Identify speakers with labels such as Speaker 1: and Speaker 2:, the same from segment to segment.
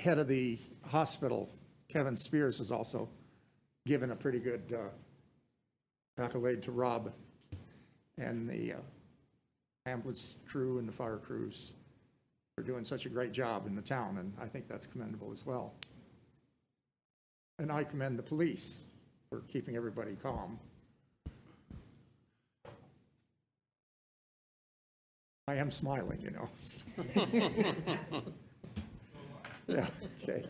Speaker 1: head of the hospital, Kevin Spears, has also given a pretty good uh, accolade to Rob and the uh, ambulance crew and the fire crews for doing such a great job in the town, and I think that's commendable as well. And I commend the police for keeping everybody calm. I am smiling, you know. Yeah, okay.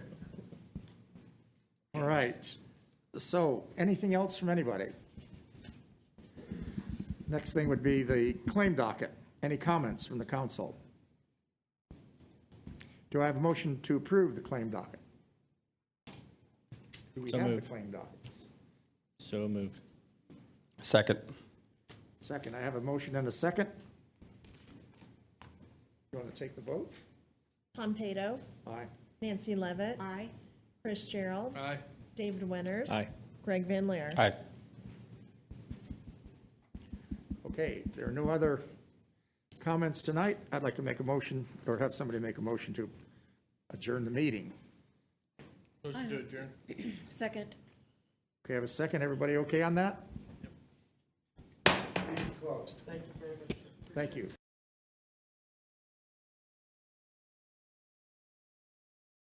Speaker 1: All right. So, anything else from anybody? Next thing would be the claim docket. Any comments from the council? Do I have a motion to approve the claim docket? Do we
Speaker 2: So
Speaker 1: have the
Speaker 2: moved.
Speaker 1: claim docket?
Speaker 2: So moved.
Speaker 3: Second.
Speaker 1: Second, I have a motion and a second. You want to take the vote?
Speaker 4: Tom Pato,
Speaker 1: Aye.
Speaker 4: Nancy Levitt. Aye. Chris Gerald. Aye. David Winters.
Speaker 2: Aye.
Speaker 4: Greg Van Leer.
Speaker 3: Aye.
Speaker 1: Okay, if there are no other comments tonight, I'd like to make a motion, or have somebody make a motion to adjourn the meeting.
Speaker 2: Motion to adjourn.
Speaker 4: Second.
Speaker 1: Okay, have a second, everybody okay on that? Close. Thank you very much. Thank you.